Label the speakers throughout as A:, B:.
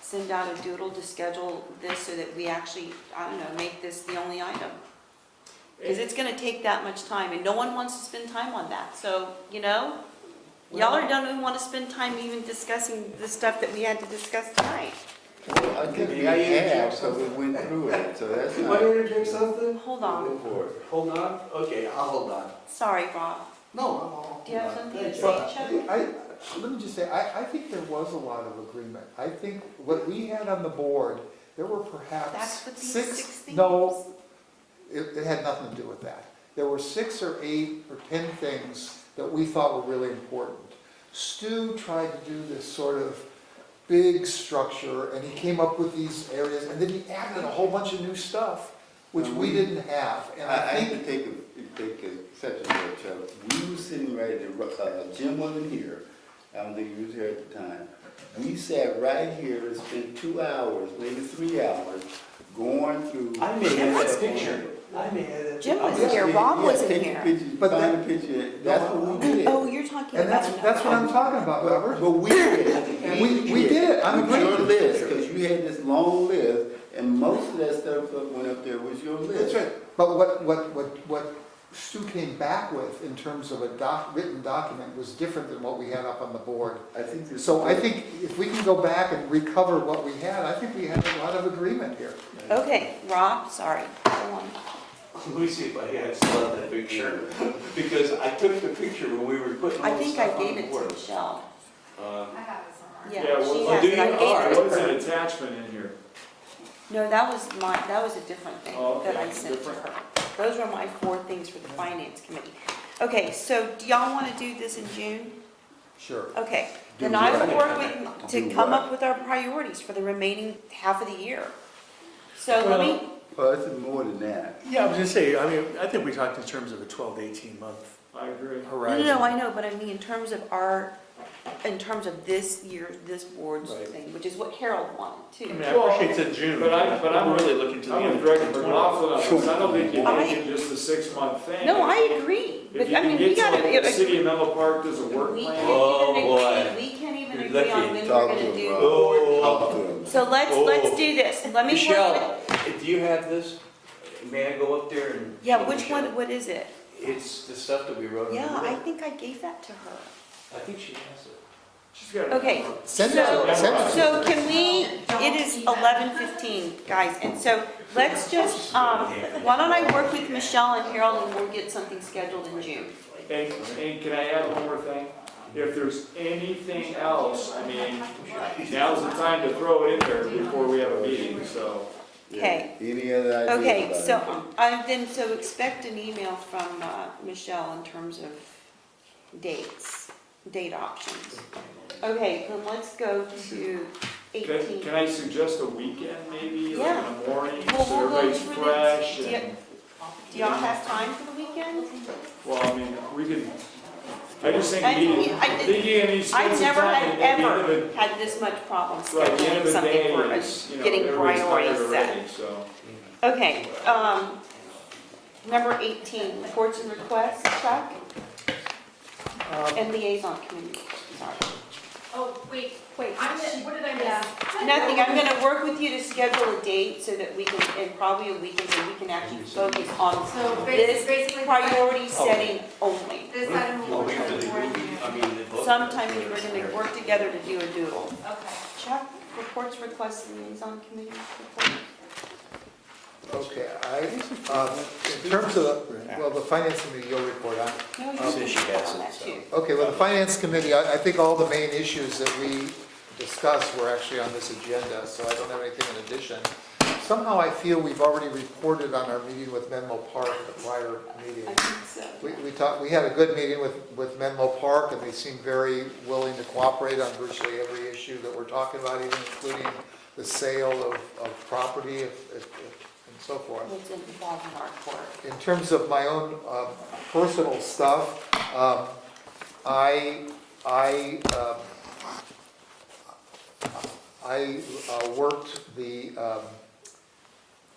A: send out a doodle to schedule this so that we actually, I don't know, make this the only item. Because it's gonna take that much time, and no one wants to spend time on that, so, you know? Y'all are don't even wanna spend time even discussing the stuff that we had to discuss tonight.
B: I think we
C: Yeah, yeah, yeah.
B: have, so we went through it, so that's
C: You want
B: not.
C: to interject something?
A: Hold on,
B: Go for it.
C: Hold on? Okay, I'll hold on.
A: sorry, Rob.
C: No, I'm all.
A: Do you have something to
C: Thank
A: say,
C: you.
A: Chuck?
D: I, let me just say, I, I think there was a lot of agreement. I think what we had on the board, there were
A: That's
D: perhaps
A: what these six
D: six,
A: things.
D: no, it, it had nothing to do with that. There were six or eight or 10 things that we thought were really important. Stu tried to do this sort of big structure, and he came up with these areas, and then he added a whole bunch of new stuff, which we didn't have, and
B: Um, I, I
D: I
B: have to
D: think,
B: take, a- take exception to that, Chuck. We were sitting right there, uh, Jim wasn't here. I don't think he was here at the time. We sat right here and spent two hours, maybe three hours, going through.
C: I may have
B: What's
C: that picture. I may have that.
A: Jim was here.
C: picture.
A: Rob wasn't here.
B: Take the picture,
D: But
B: find the picture, that's what we did.
A: Oh, you're talking about.
D: and that's,
A: another
D: that's what I'm
A: one.
D: talking about, Robert.
B: But we did. it.
D: We- we did it. I'm
B: With your
D: agreeing.
B: list, because you had this long list, and most of that stuff that went up there was your list.
D: That's right, but what, what, what, what Stu came back with in terms of a doc, written document was different than what we had up on the board.
B: I think this.
D: So I think if we can go back and recover what we had, I think we had a lot of agreement here.
A: Okay, Rob, sorry, go on.
C: Let me see if I, yeah, I still have that picture. Because I took the picture when we were putting
A: I
C: all the
A: think
C: stuff on
A: I
C: the
A: gave it to
C: board.
A: Michelle.
C: Uh,
A: Yeah,
E: Yeah,
A: she
E: well,
A: has
E: do
A: it,
E: you,
A: I
E: all right,
A: gave it
E: what's
A: to her.
E: an attachment in here?
A: No, that was my, that was a different thing
E: Oh,
A: that I
E: okay,
A: sent to
E: different.
A: her. Those were my four things for the finance committee. Okay, so do y'all want to do this in June?
D: Sure.
A: Okay,
B: Do
A: then I will
B: what?
A: work with, to
B: Do
A: come
B: what?
A: up with our priorities for the remaining half of the year. So let me,
B: Well, it's more than that.
F: Yeah, I was gonna say, I mean, I think we talked in terms of a twelve to eighteen month
E: I agree.
A: no,
F: horizon.
A: no, no, I know, but I mean, in terms of our, in terms of this year, this board's
F: Right.
A: thing, which is what Harold wanted
F: I mean,
A: too.
F: I appreciate it's in June,
E: But
F: but
E: I- but I'm-
F: I'm really looking to the
E: I
F: end
E: would
F: of
E: direct her
F: 2020.
E: off of that, because I don't think you
A: I-
E: can do just a six-month thing.
A: No, I agree,
E: If
A: but
E: you
A: I mean,
E: can
A: we
E: get
A: gotta.
E: to the city of Menlo Park, there's a work
A: We
E: plan.
A: can't even
C: Oh,
A: agree, we can't even
C: You're
A: agree on
C: lucky.
A: when we're
B: Talk to
A: gonna do
B: him, Rob.
A: board
B: Talk to him.
A: So let's, let's
C: Oh.
A: do this, let me. work with-
C: Michelle, do you have this? May I go up there and?
A: Yeah, which one, what is it?
C: It's the stuff that we wrote. in the
A: Yeah, I
C: book.
A: think I gave that to her.
C: I think she has it.
E: She's got it.
A: Okay,
D: Send it to, send it to.
A: so can we, it is eleven fifteen, guys, and so let's just, um, why don't I work with Michelle and Harold and we'll get something scheduled in June?
E: And, and can I add one more thing? If there's anything else, I mean, now's the time to throw it in there before we have a meeting, so.
A: Okay.
B: Yeah. Any other ideas?
A: Okay,
B: about it?
A: so, I then, so expect an email from, uh, Michelle in terms of dates, date options. Okay, then let's go to
E: Can,
A: eighteen.
E: can I suggest a weekend maybe, like in the morning,
A: Well,
E: so
A: we'll go
E: everybody's
A: through the-
E: fresh
A: do you-
E: and,
A: Do y'all have time for the weekend?
E: well, I mean, we can, I just think
A: I-
E: you need,
A: I did-
E: think you need to spend
A: I've
E: some
A: never
E: time
A: had,
E: at the end of
A: ever
E: it.
A: had this much problem
E: Right, at the end
A: scheduling
E: of the
A: something
E: day,
A: for
E: it's,
A: us,
E: you know,
A: getting
E: everybody's tired
A: priorities set.
E: already, so.
A: Okay, um, number eighteen, reports and requests, Chuck,
D: Um,
A: and liaison committee, sorry.
G: Oh, wait,
A: Wait,
G: I'm gonna, what did I miss?
A: nothing, I'm gonna work with you to schedule a date so that we can, and probably a weekend, so we can actually focus on
G: So
A: This
G: bas- basically,
A: priority
C: Oh.
A: setting only.
G: this item will
C: Well,
G: be
C: we really,
G: before
C: I mean, the book.
A: Sometime we were gonna work together to do a doodle.
G: you. Okay.
A: Chuck, reports, requests, liaison committee report.
D: Okay, I, um, in terms of, the- well, the finance committee, you'll report on.
A: No, you
C: Says
A: can
C: she
A: put that
C: has
A: on
C: it,
A: that
C: so.
A: too.
D: Okay, well, the finance committee, I, I think all the main issues that we discussed were actually on this agenda, so I don't have anything in addition. Somehow I feel we've already reported on our meeting with Menlo Park, the prior meeting.
A: I think so.
D: We, we talked, we had a good meeting with, with Menlo Park, and they seemed very willing to cooperate on virtually every issue that we're talking about, even including the sale of, of property if- if- if- and so forth
A: What's involved in our court.
D: in terms of my own uh, personal stuff, um, I, I, um, I uh, worked the um,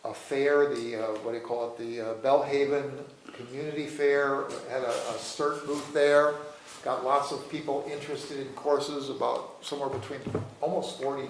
D: a fair, the, uh, what do you call it, the uh, Bellhaven Community Fair, had a a CERT booth there, got lots of people interested in courses, about somewhere between almost 40